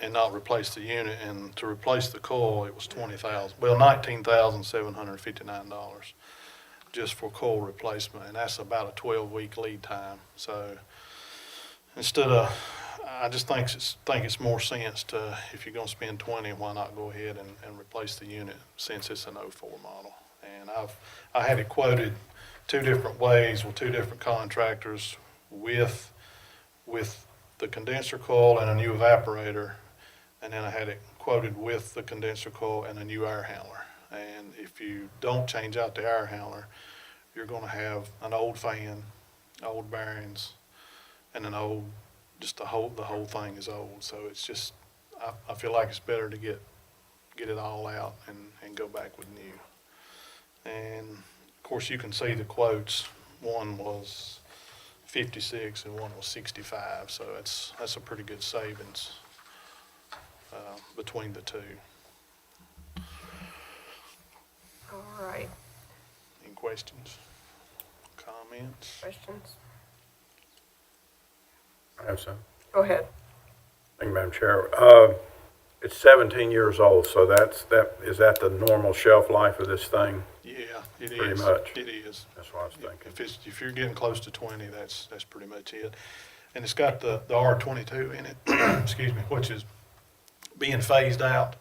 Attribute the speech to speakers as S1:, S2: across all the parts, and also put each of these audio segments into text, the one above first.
S1: and not replace the unit. And to replace the coil, it was twenty thousand, well, nineteen thousand seven hundred fifty-nine dollars just for coil replacement, and that's about a twelve-week lead time. So instead of, I just think it's, think it's more sense to, if you're gonna spend twenty, why not go ahead and, and replace the unit since it's an 04 model? And I've, I had it quoted two different ways with two different contractors with, with the condenser coil and a new evaporator. And then I had it quoted with the condenser coil and a new air handler. And if you don't change out the air handler, you're gonna have an old fan, old bearings, and an old, just the whole, the whole thing is old. So it's just, I, I feel like it's better to get, get it all out and, and go back with new. And of course, you can see the quotes. One was fifty-six and one was sixty-five, so that's, that's a pretty good savings, uh, between the two.
S2: All right,
S1: Any questions? Comments?
S2: questions?
S3: I have some.
S2: Go ahead.
S3: Thank you, Madam Chair. Uh, It's 17 years old, so that's, that, is that the normal shelf life of this thing?
S1: Yeah, it is.
S3: Pretty much.
S1: It is.
S3: That's what I was thinking.
S1: If it's, if you're getting close to twenty, that's, that's pretty much it. And it's got the, the R twenty-two in it, excuse me, which is being phased out.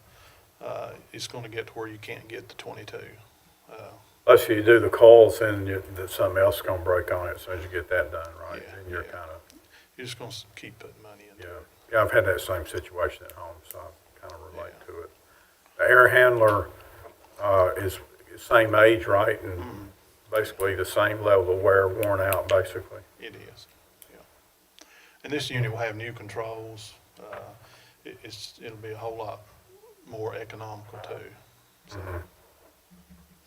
S1: Uh, it's gonna get to where you can't get the twenty-two. Uh,
S3: Unless you do the coils and you- that something else is gonna break on it as soon as you get that done, right?
S1: Yeah,
S3: Then you're
S1: yeah.
S3: kind of,
S1: You're just gonna s- keep putting money into
S3: yeah.
S1: it.
S3: Yeah, I've had that same situation at home, so I kind of relate to it. The air handler uh, is is same age, right?
S1: Mm-hmm.
S3: And basically the same level of wear, worn out, basically.
S1: It is, yeah. And this unit will have new controls. Uh, it, it's, it'll be a whole lot more economical too. So,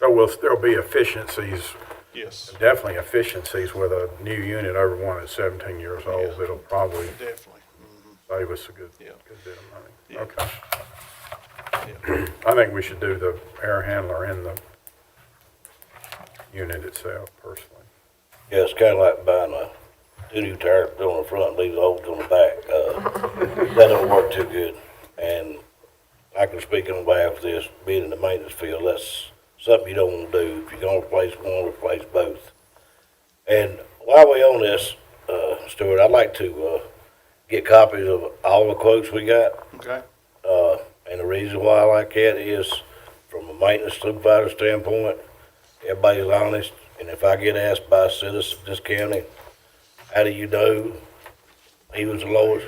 S3: There will still be efficiencies
S1: yes,
S3: Definitely efficiencies with a new unit over one that's 17 years old.
S1: Yeah.
S3: It'll probably
S1: definitely. Mhm,
S3: save us a good,
S1: Yeah.
S3: good bit of
S1: Yeah.
S3: money. Okay.
S1: yeah.
S3: I think we should do the air handler and the unit itself personally.
S4: Yeah, it's kind of like buying a two-new tire, put it on the front, leave the old on the back. Uh, that don't work too good. And I can speak on behalf of this, being in the maintenance field, that's something you don't want to do. If you're going to replace one, replace both. And while we on this, uh, Stuart, I'd like to, uh, get copies of all the quotes we got.
S1: Okay,
S4: Uh, and the reason why I like that is, from a maintenance supervisor standpoint, everybody's honest, and if I get asked by a citizen of this county, how do you know he was the lowest?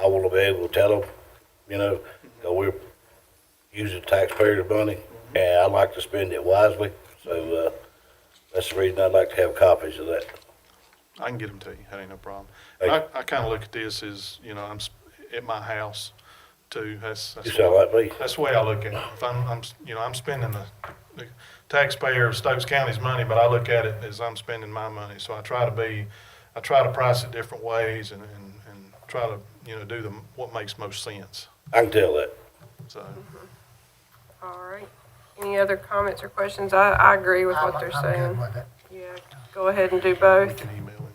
S4: I want to be able to tell them, you know, 'cause we're using taxpayers' money, and I like to spend it wisely, so, uh, that's the reason I'd like to have copies of that.
S1: I can get them to you. That ain't no problem. And I, I kinda look at this as, you know, I'm s- at my house too. That's, that's.
S4: You sound like me.
S1: That's the way I look at it. If I'm, I'm, s- you know, I'm spending the, the taxpayer of Stokes County's money, but I look at it as I'm spending my money. So I try to be, I try to price it different ways and, and, and try to, you know, do the, what makes most sense.
S4: I can tell that.
S1: So,
S2: All right. Any other comments or questions? I, I agree with
S5: I'm-
S2: what they're
S5: I'm
S2: saying.
S5: good with it.
S2: Yeah, go ahead and do
S1: we
S2: both.
S1: can email it.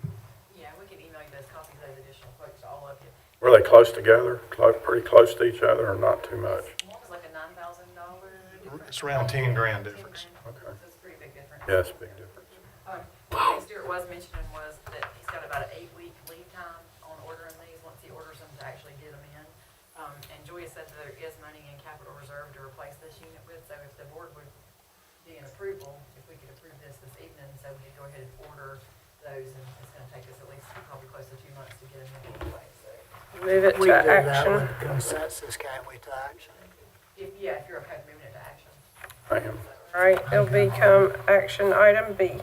S6: Yeah, we can email you those copies of the additional quotes, all of you.
S3: Were they close together, Clo- pretty close to each other or not too much?
S6: One was like a nine thousand dollar difference.
S1: It's around ten grand difference.
S3: Okay.
S6: So it's a pretty big difference.
S3: Yes, big difference.
S6: Um, One thing Stuart was mentioning was that he's got about an eight-week lead time on ordering these, once he orders them to actually get them in. Um, and Julia said that there is money in capital reserve to replace this unit with, so if the board would be in approval, if we could approve this this evening, so we could go ahead and order those, and it's gonna take us at least probably close to two months to get them in anyway, so.
S2: Move it
S5: We
S2: to
S5: do that
S2: action.
S5: with consensus, can't we, to action?
S6: If, yeah, if you're okay with moving it to action.
S3: I am.
S2: All right, it'll become action item B.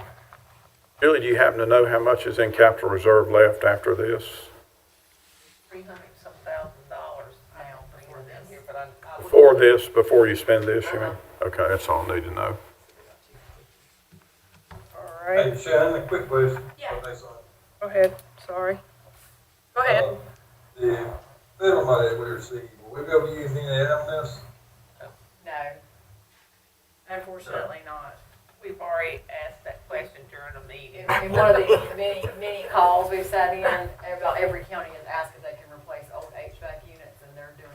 S3: Julie, do you happen to know how much is in capital reserve left after this?
S6: Three hundred some thousand dollars now before this. But I, I would.
S3: Before this, before you spend this, you mean? Okay, that's all I need to know.
S2: All
S7: Hey,
S2: right,
S7: Shannon, a quick question.
S6: Yeah.
S2: go ahead, sorry. Go ahead.
S7: The federal money that we received, will we be able to use any of that on this?
S6: No. Unfortunately not.
S8: We've already asked that question during the meeting.
S6: In, in one of the many, many calls we've sat in, about every county has asked